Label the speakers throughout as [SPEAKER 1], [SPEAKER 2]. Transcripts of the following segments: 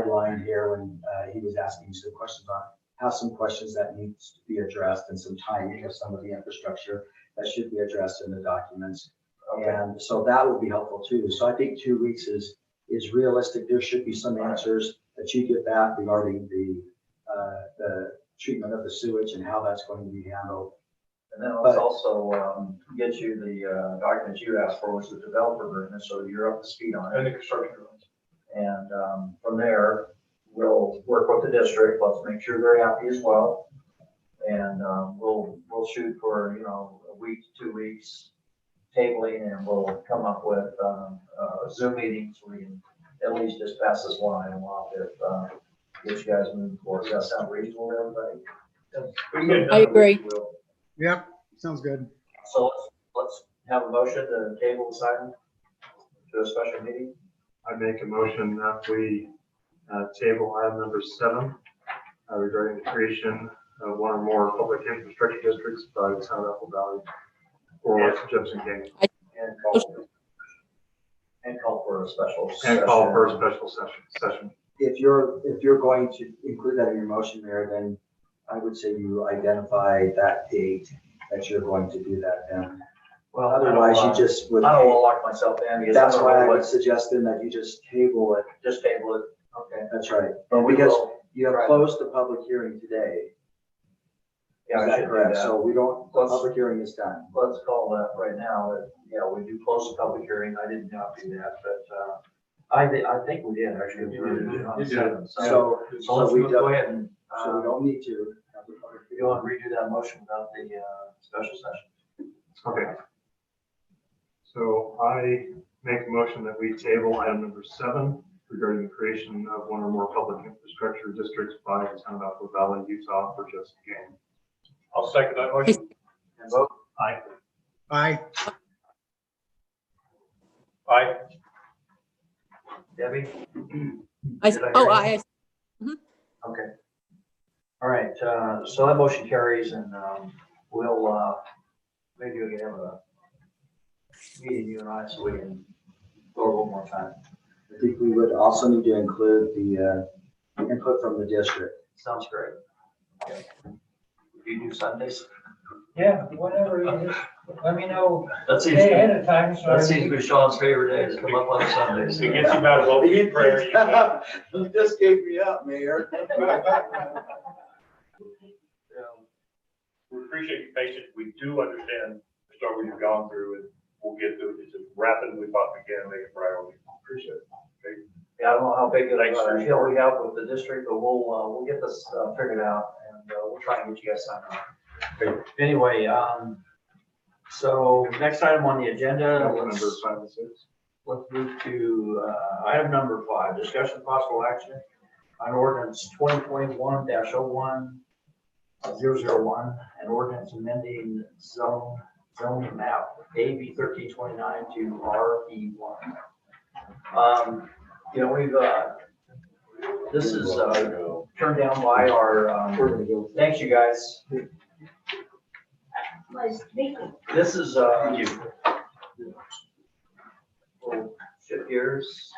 [SPEAKER 1] sideline here when uh, he was asking some questions on, have some questions that needs to be addressed and some timing of some of the infrastructure that should be addressed in the documents. And so that would be helpful too. So I think two weeks is, is realistic. There should be some answers that you get back regarding the, uh, the treatment of the sewage and how that's going to be handled.
[SPEAKER 2] And then let's also um, get you the uh, document you asked for, which is the developer agreement, so you're up to speed on it.
[SPEAKER 3] And the construction drawings.
[SPEAKER 2] And um, from there, we'll work with the district, let's make sure they're happy as well. And um, we'll, we'll shoot for, you know, a week, two weeks tabling, and we'll come up with um, uh, Zoom meetings, we can at least just pass this line along if, uh, if you guys move forward, does that sound reasonable to everybody?
[SPEAKER 3] We can get it
[SPEAKER 4] I
[SPEAKER 3] done.
[SPEAKER 4] agree.
[SPEAKER 2] We'll-
[SPEAKER 5] Yep, sounds good.
[SPEAKER 2] So let's, let's have a motion to table this item to a special meeting.
[SPEAKER 6] I make a motion that we uh, table item number seven uh, regarding the creation of one or more public infrastructure districts by the town of Apple Valley or Jefferson County
[SPEAKER 2] And call, and call for a special session.
[SPEAKER 6] and call for a special session, session.
[SPEAKER 1] If you're, if you're going to include that in your motion, Mayor, then I would say you identify that date that you're going to do that then.
[SPEAKER 2] Well,
[SPEAKER 1] Otherwise, you just
[SPEAKER 2] I
[SPEAKER 1] would.
[SPEAKER 2] don't want to lock myself in because
[SPEAKER 1] That's why I would
[SPEAKER 2] was
[SPEAKER 1] suggest then that you just table it.
[SPEAKER 2] just table it. Okay.
[SPEAKER 1] That's right.
[SPEAKER 2] But we
[SPEAKER 1] Because
[SPEAKER 2] will-
[SPEAKER 1] you have
[SPEAKER 2] Right.
[SPEAKER 1] closed the public hearing today.
[SPEAKER 2] Yeah,
[SPEAKER 1] Is
[SPEAKER 2] I should
[SPEAKER 1] that
[SPEAKER 2] do
[SPEAKER 1] correct?
[SPEAKER 2] that.
[SPEAKER 1] So we don't, the
[SPEAKER 2] Let's-
[SPEAKER 1] public hearing is done.
[SPEAKER 2] Let's call that right now. that, Yeah, we do close the public hearing. I did not do that, but, uh, I, thi- I think we did actually.
[SPEAKER 3] You did.
[SPEAKER 2] We did on
[SPEAKER 3] You did.
[SPEAKER 2] seven. So
[SPEAKER 1] So,
[SPEAKER 2] so let's
[SPEAKER 1] so we
[SPEAKER 2] go
[SPEAKER 1] don't,
[SPEAKER 2] ahead and,
[SPEAKER 1] so we
[SPEAKER 2] uh,
[SPEAKER 1] don't need to. have the public
[SPEAKER 2] we
[SPEAKER 1] hearing.
[SPEAKER 2] go and redo that motion without the, uh, special session.
[SPEAKER 6] Okay. So I make a motion that we table item number seven regarding the creation of one or more public infrastructure districts by the town of Apple Valley, Utah for Jefferson County.
[SPEAKER 3] I'll second that motion.
[SPEAKER 2] And vote.
[SPEAKER 6] Aye.
[SPEAKER 5] Aye.
[SPEAKER 3] Aye.
[SPEAKER 2] Debbie?
[SPEAKER 4] I,
[SPEAKER 2] Did I hear
[SPEAKER 4] oh,
[SPEAKER 2] you?
[SPEAKER 4] I,
[SPEAKER 2] Okay. All right, uh, so that motion carries and, um, we'll, uh, maybe we can have a meeting, you and I, so we can go over one more time.
[SPEAKER 1] I think we would also need to include the uh, input from the district.
[SPEAKER 2] Sounds great. Okay. Do you do Sundays? Yeah, whatever it is, let me know. That's easy. That seems to be Sean's favorite day, is come up on Sundays.
[SPEAKER 3] It gets you out of all the prayer. you got.
[SPEAKER 1] You just gave me up, Mayor.
[SPEAKER 2] Um,
[SPEAKER 3] We appreciate your patience. We do understand the struggle you've gone through and we'll get through it as rapidly as possibly can, make it priority. Appreciate it.
[SPEAKER 2] Yeah, I don't know how big of
[SPEAKER 3] Thanks for-
[SPEAKER 2] a deal we have with the district, but we'll, uh, we'll get this uh, figured out and uh, we'll try and get you guys signed on. Anyway, um, so next item on the agenda,
[SPEAKER 6] Item
[SPEAKER 2] let's,
[SPEAKER 6] Number five and six.
[SPEAKER 2] let's move to, uh, item number five, discussion of possible action on ordinance twenty twenty-one dash oh one oh zero zero one, an ordinance amending zone, zone map, AB thirteen twenty-nine to RE one. Um, you know, we've, uh, this is, uh, turned down by our, um, thanks you guys.
[SPEAKER 7] was thinking,
[SPEAKER 2] This is, uh, we'll shift gears.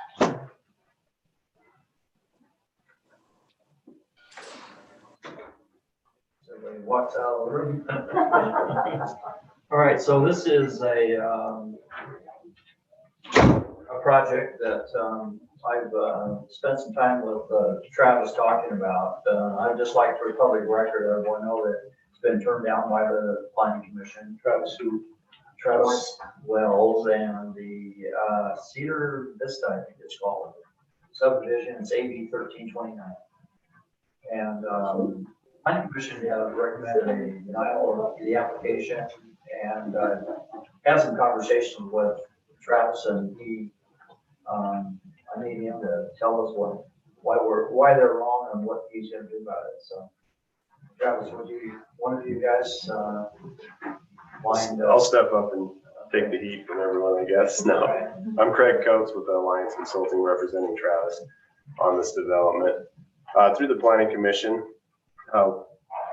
[SPEAKER 2] Somebody walks out of the room. All right, so this is a, um, a project that, um, I've, uh, spent some time with uh, Travis talking about. Uh, I'd just like for public record, everyone know that it's been turned down by the planning commission. Travis who? Travis Wells and the, uh, Cedar Vista, I think it's called, subdivision, it's AB thirteen twenty-nine. And, um, planning commission have recommended a denial of the application and uh, had some conversation with Travis and he, um, I need him to tell us what, why we're, why they're wrong and what he's gonna do about it, so. Travis, would you, one of you guys, uh, mind? uh,
[SPEAKER 8] I'll step up and take the heat from everyone, I guess. No, I'm Craig Coates with Alliance Consulting representing Travis on this development. Uh, Through the planning commission, uh,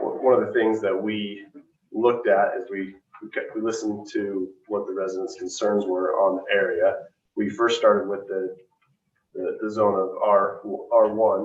[SPEAKER 8] w- one of the things that we looked at is we, we kept- we listened to what the residents' concerns were on the area. We first started with the
[SPEAKER 6] the, the zone of R, R one